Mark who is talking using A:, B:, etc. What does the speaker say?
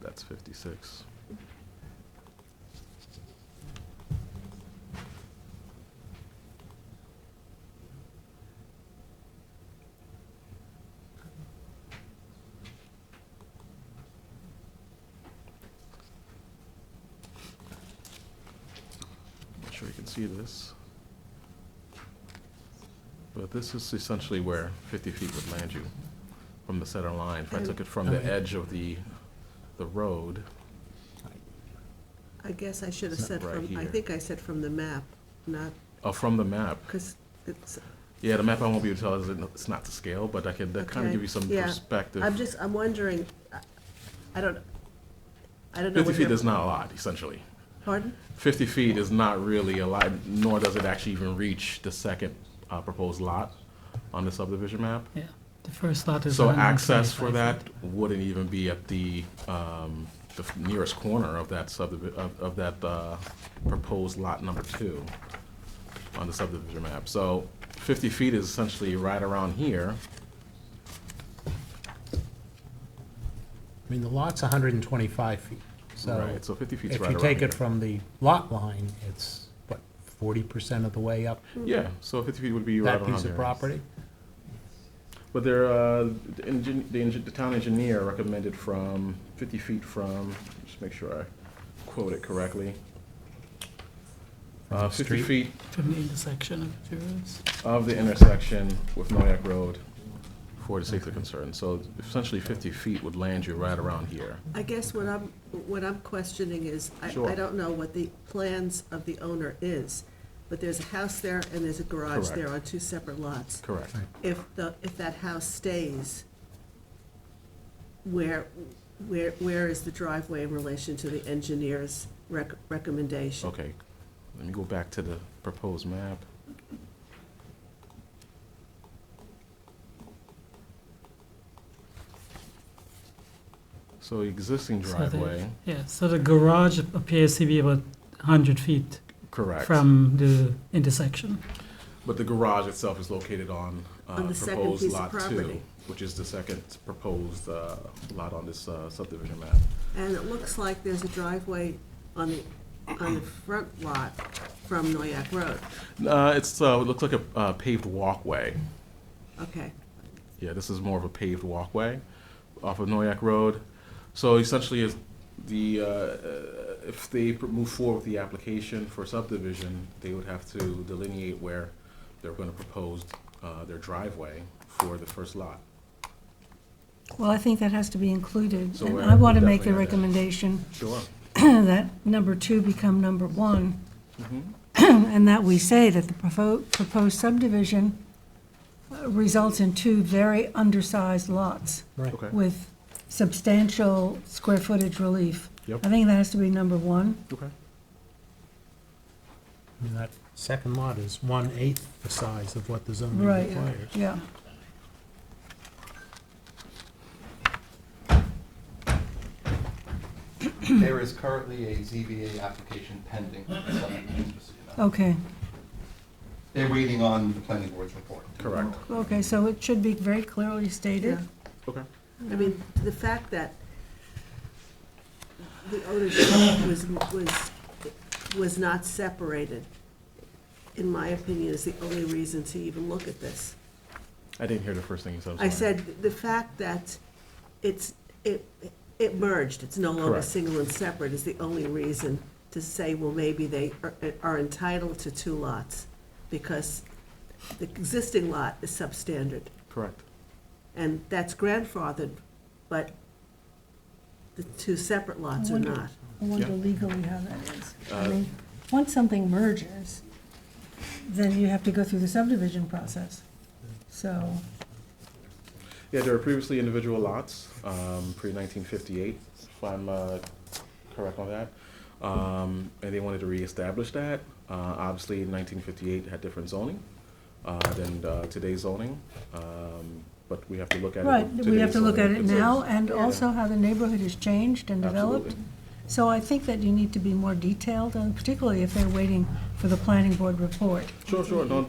A: that's 56. Not sure you can see this. But this is essentially where 50 feet would land you from the center line. If I took it from the
B: Okay.
A: edge of the, the road,
C: I guess I should have
A: It's not
C: said
A: right
C: from, I
A: here.
C: think I said from the map, not,
A: oh, from the map.
C: because it's,
A: Yeah, the map I won't be able to tell, is it- it's not to scale, but I can kind of
C: Okay,
A: give you some
C: yeah.
A: perspective.
C: I'm just, I'm wondering, I- I don't, I don't know.
A: 50
C: what
A: feet
C: your-
A: is not a lot, essentially.
C: Pardon?
A: 50 feet is not really a lot, nor does it actually even reach the second uh, proposed lot on the subdivision map.
B: Yeah, the first lot is.
A: So
B: 125
A: access for that
B: feet.
A: wouldn't even be at the, um, the f- nearest corner of that subdivi, of, of that, uh, proposed lot number two on the subdivision map. So fifty feet is essentially right around here.
D: I mean, the lot's 125 feet, so
A: Right, so fifty feet's
D: if
A: right around
D: you
A: here.
D: take it from the lot line, it's, what, 40% of the way up
A: Yeah, so fifty feet would be right
D: that
A: around
D: piece of
A: here.
D: property?
A: But there, uh, the engin, the engi- the town engineer recommended from fifty feet from, just make sure I quote it correctly. Uh,
D: From the
A: fifty
D: street?
A: feet
B: From the intersection of the two roads.
A: of the intersection with Noyak Road for the safety concern. So essentially 50 feet would land you right around here.
C: I guess what I'm, what I'm questioning is, I, I
A: Sure.
C: don't know what the plans of the owner is, but there's a house there and there's a garage there on
A: Correct.
C: two separate lots.
A: Correct.
D: Right.
C: If the, if that house stays, where, where, where is the driveway in relation to the engineer's rec- recommendation?
A: Okay, let me go back to the proposed map. So existing
B: So the-
A: driveway,
B: Yeah, so the garage appears to be about 100 feet
A: correct.
B: from the intersection.
A: But the garage itself is located on uh,
C: On the second
A: proposed
C: piece of
A: lot two,
C: property.
A: which is the second proposed uh, lot on this uh, subdivision map.
C: And it looks like there's a driveway on the, on the front lot from Noyak Road.
A: Uh, it's uh, it looks like a uh, paved walkway.
C: Okay,
A: Yeah, this is more of a paved walkway off of Noyak Road. So essentially, is the uh, uh, if they pr- move forward with the application for subdivision, they would have to delineate where they're going to propose uh, their driveway for the first lot.
E: Well, I think that has to be included,
A: So
E: and
A: we're
E: I want to make the
A: definitely gonna-
E: recommendation
A: Sure.
E: that number two become number one,
A: Mm-hmm.
E: and that we say that the propo- proposed subdivision uh, results in two very undersized lots
D: Right.
A: Okay.
E: with substantial square footage relief.
A: Yep.
E: I think that has to be number one.
A: Okay.
D: I mean, that second lot is one-eighth the size of what the zoning
E: Right.
D: requires.
E: Yeah.
F: There is currently a ZBA application pending. for subdivision, just so you know.
E: Okay.
F: They're waiting on the planning board's report.
A: Correct.
E: Okay, so it should be very clearly stated.
C: yeah.
A: Okay.
C: I mean, the fact that the ownership was, was, was not separated, in my opinion, is the only reason to even look at this.
A: I didn't hear the first thing you said. I'm
C: I
A: sorry.
C: said, the fact that it's, it, it merged, it's no longer
A: Correct.
C: single and separate is the only reason to say, well, maybe they are- are entitled to two lots, because the existing lot is substandard,
A: correct.
C: and that's grandfathered, but the two separate lots are
E: Wonder-
C: not.
E: I wonder
A: Yeah.
E: legally how that is. I
A: Uh,
E: mean, once something merges, then you have to go through the subdivision process. So,
A: Yeah, there were previously individual lots, um, pre-1958, if I'm uh, correct on that. Um, And they wanted to reestablish that. Uh, Obviously, in 1958 had different zoning uh, than uh, today's zoning, Um, but we have to look at it.
E: right,
A: with
E: we have
A: today's
E: to look at
A: zoning
E: it now
A: concerns.
E: and also how the neighborhood has changed and developed.
A: Absolutely.
E: So I think that you need to be more detailed and particularly if they're waiting for the planning board report.
A: Sure, sure, no,